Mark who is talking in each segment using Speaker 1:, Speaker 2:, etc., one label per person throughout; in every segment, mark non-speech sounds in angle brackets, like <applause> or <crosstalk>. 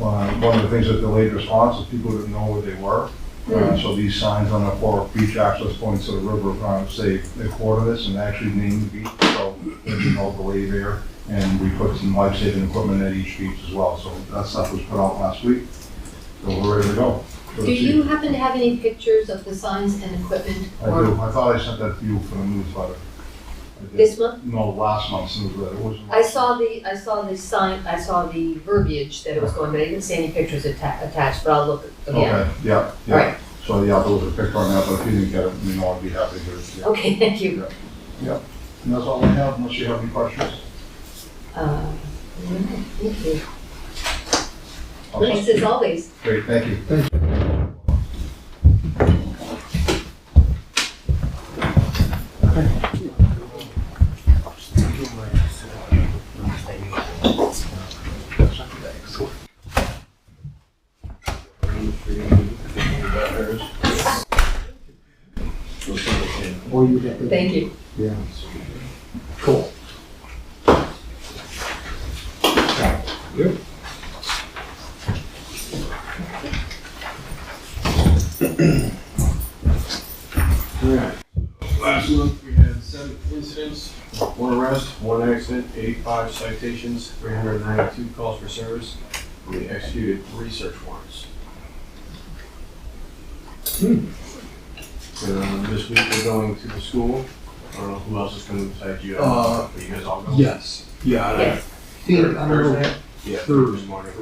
Speaker 1: Uh, one of the things that delayed response is people didn't know where they were. Uh,
Speaker 2: Hmm.
Speaker 1: so these signs on the four beach access points to the river, uh, say, a quarter of this, and actually named the beach, so there's no delay there. And we put some life-saving equipment at each beach as well, so that stuff was put out last week. So we're ready to go. So
Speaker 2: Do
Speaker 1: it's-
Speaker 2: you happen to have any pictures of the signs and equipment?
Speaker 1: I
Speaker 2: or
Speaker 1: do, I thought I sent that to you for the newsletter. I did.
Speaker 2: This month?
Speaker 1: No, last month's newsletter, it was.
Speaker 2: I saw the, I saw the sign, I saw the verbiage that it was going, but I didn't see any pictures atta- attached, but I'll look again.
Speaker 1: Okay, yeah,
Speaker 2: All
Speaker 1: yeah.
Speaker 2: right,
Speaker 1: So, yeah, there was a picture on that, but if you didn't get it, you know, I'd be happy to hear it. yeah.
Speaker 2: okay, <laughs> thank you.
Speaker 1: And that's all I have, unless you have any questions.
Speaker 2: Uh, all right, Thank you.
Speaker 1: I'll-
Speaker 2: Thanks as always.
Speaker 1: Great, thank you.
Speaker 3: Or you get the.
Speaker 2: Thank you.
Speaker 3: Yeah. Cool.
Speaker 4: Last month, we had seven incidents, one arrest, one accident, eighty-five citations, three hundred ninety-two calls for service, and we executed three search warrants. Hmm. Um, this week, we're going to the school, I don't know who else is coming besides you,
Speaker 3: Uh,
Speaker 4: but you guys all go.
Speaker 3: Yes, yeah. and I
Speaker 2: Yes.
Speaker 3: Think, I don't know,
Speaker 4: Thursday? Yeah,
Speaker 3: Thursday.
Speaker 4: Thursday morning.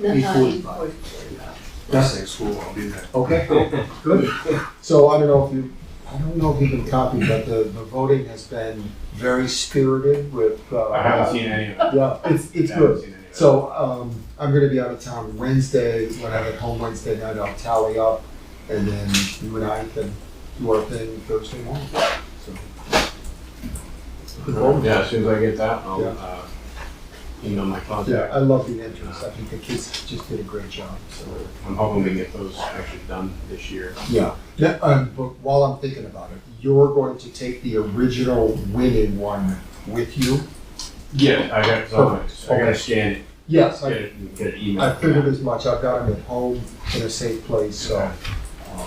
Speaker 2: No,
Speaker 3: Eight
Speaker 2: uh,
Speaker 3: forty-five.
Speaker 2: eight forty-five.
Speaker 4: That's at school, I'll be there.
Speaker 3: okay, <laughs> good. So I don't know if you, I don't know if you can copy, but the, the voting has been very spirited with, uh.
Speaker 4: I haven't seen any of it.
Speaker 3: Yeah, it's, it's
Speaker 4: I haven't
Speaker 3: good.
Speaker 4: seen any of it.
Speaker 3: So, um, I'm gonna be out of town Wednesday, when I'm at home Wednesday night, I'll tally up, and then you and I can do our thing Thursday morning, so.
Speaker 4: Yeah, as soon as I get that, I'll,
Speaker 3: Yeah.
Speaker 4: uh, email my contact.
Speaker 3: Yeah, I love the entrance, I think the kids just did a great job, so.
Speaker 4: I'm hoping we get those actually done this year.
Speaker 3: Yeah, yeah, um, but while I'm thinking about it, you're going to take the original winning one with you?
Speaker 4: Yeah. I got, so I'm gonna- I
Speaker 3: Okay.
Speaker 4: gotta scan it,
Speaker 3: Yes,
Speaker 4: get
Speaker 3: I,
Speaker 4: it, and get it emailed.
Speaker 3: I figured as much, I've got them at home in a safe place, so. um,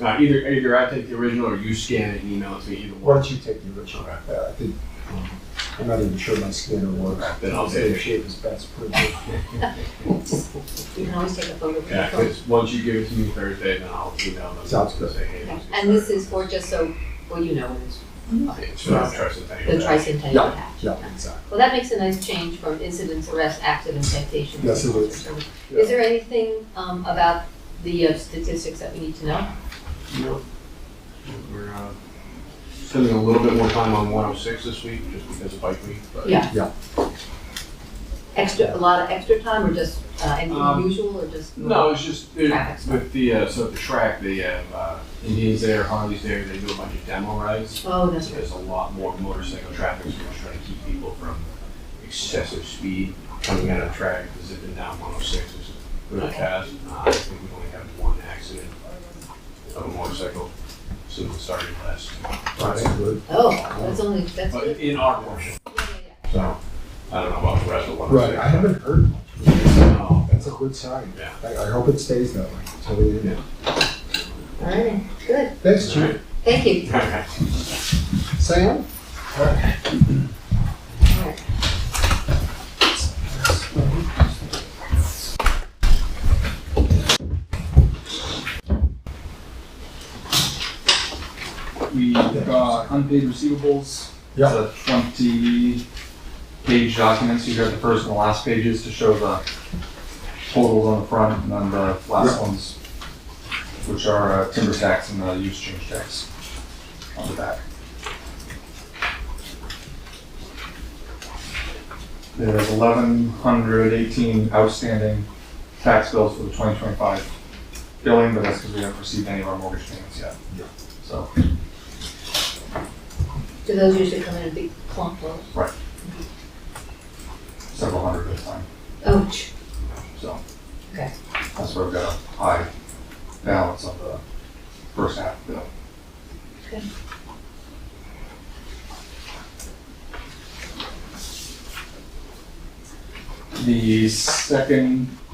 Speaker 4: Uh, either, either I take the original or you scan it and email it to me, either
Speaker 3: Why
Speaker 4: one.
Speaker 3: don't you take the original?
Speaker 4: Okay.
Speaker 3: Uh, I think, um, I'm not even sure my scanner works.
Speaker 4: Then I'll
Speaker 3: say
Speaker 4: take
Speaker 3: the
Speaker 4: it.
Speaker 3: shape is best pretty good.
Speaker 2: You can always take a photo.
Speaker 4: Yeah, cause once you give it to me Thursday, then I'll email them.
Speaker 3: Sounds
Speaker 4: and
Speaker 3: good.
Speaker 4: Say, hey.
Speaker 2: Yeah,
Speaker 4: this
Speaker 2: And this is for, just so, well, you know, it's
Speaker 4: It's not trusted thing.
Speaker 2: the tricentennial act.
Speaker 3: <laughs> Yeah, exactly.
Speaker 2: Well, that makes a nice change from incidents, arrests, accidents, citations.
Speaker 3: Yes, it
Speaker 2: and
Speaker 3: is.
Speaker 2: service.
Speaker 3: Yeah.
Speaker 2: Is there anything um, about the uh, statistics that we need to know?
Speaker 4: Nope. We're, uh, spending a little bit more time on one oh six this week, just because of bike week, but.
Speaker 2: Yeah.
Speaker 3: Yeah.
Speaker 2: Extra, a lot of extra time, or just uh, anything
Speaker 4: Um,
Speaker 2: unusual, or just?
Speaker 4: No, it's just it,
Speaker 2: Traffic stuff.
Speaker 4: with the uh, so at the track they have uh, Indians there, Harleys there. They do a bunch of demo rides.
Speaker 2: Oh, that's
Speaker 4: So
Speaker 2: right.
Speaker 4: there's a lot more motorcycle traffic, so we're trying to keep people from excessive speed coming out of track. Because they've been down 106, which is really
Speaker 2: Okay.
Speaker 4: fast. Uh, I think we only have one accident of a motorcycle since it started last
Speaker 3: That's
Speaker 4: Friday,
Speaker 3: good.
Speaker 2: Oh, that's only, that's
Speaker 4: but
Speaker 2: good.
Speaker 4: in our portion.
Speaker 2: Yeah, yeah, yeah.
Speaker 4: So I don't know about the oh rest of
Speaker 3: Right,
Speaker 4: 106. <laughs>
Speaker 3: I haven't heard much.
Speaker 4: No.
Speaker 3: That's a good sign.
Speaker 4: Yeah.
Speaker 3: I, I hope it stays that way. So we-
Speaker 4: Yeah.
Speaker 2: All right, good.
Speaker 3: Thanks, Chief.
Speaker 2: Thank you.
Speaker 3: Sam?
Speaker 2: All right.
Speaker 5: We got unpaid receivables.
Speaker 3: Yeah.
Speaker 5: It's a twenty page document, so you got the first and the last pages to show the totals on the front and then the last ones, which are uh, timber tax and the use change tax on the back. There's eleven hundred eighteen outstanding tax bills for the twenty twenty-five billing, but that's because we haven't received any of our mortgage payments yet.
Speaker 3: Yeah.
Speaker 5: So.
Speaker 2: Do those usually come in a big clump or?
Speaker 5: several hundred at a time,
Speaker 2: Oh, ch-
Speaker 5: so.
Speaker 2: Okay.
Speaker 5: That's where I've got a high balance of the first half bill.
Speaker 2: Good.
Speaker 5: The second